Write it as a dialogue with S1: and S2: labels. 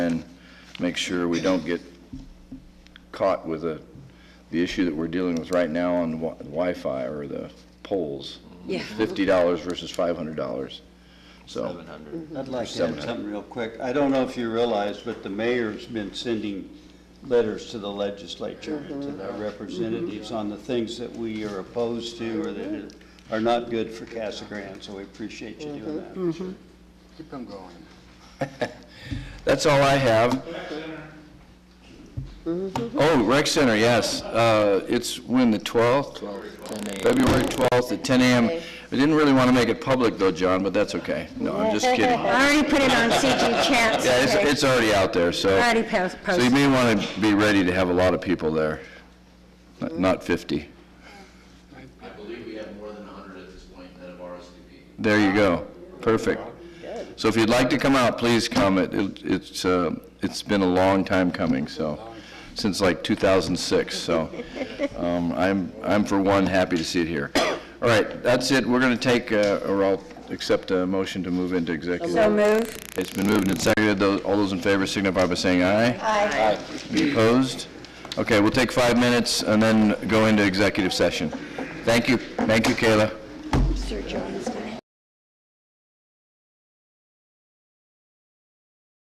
S1: make sure we don't get caught with a, the issue that we're dealing with right now on wi- Wi-Fi or the poles.
S2: Yeah.
S1: Fifty dollars versus five hundred dollars. So,
S3: I'd like to add something real quick. I don't know if you realize, but the mayor's been sending letters to the legislature, and to their representatives on the things that we are opposed to or that are not good for Casa Grande, so we appreciate you doing that.
S4: Keep them going.
S1: that's all I have. Oh, rec center, yes. Uh, it's when, the twelfth? February twelfth at ten AM. I didn't really want to make it public though, John, but that's okay. No, I'm just kidding. Yeah,
S5: I already put it on CG Chat.
S1: it's, it's already out there, so.
S5: I already pos-
S1: So you
S5: posted.
S1: may want to be ready to have a lot of people there, not- not 50.
S6: I believe we have more than hundred at this point that have RSVP'd.
S1: There you go. Perfect. So if you'd like to come out, please come. It- it- It's, uh, it's been a long time coming, so, since like 2006, so um, I'm, I'm for one, happy to see it here. All right, that's it. We're going to take, uh, or I'll accept a motion to move into executive.
S5: So move.
S1: It's been moved and seconded. Those- All those in favor signify by saying aye. Aye. Any opposed? Okay, we'll take five minutes and then go into executive session. Thank you, thank you, Kayla.
S2: Sir John.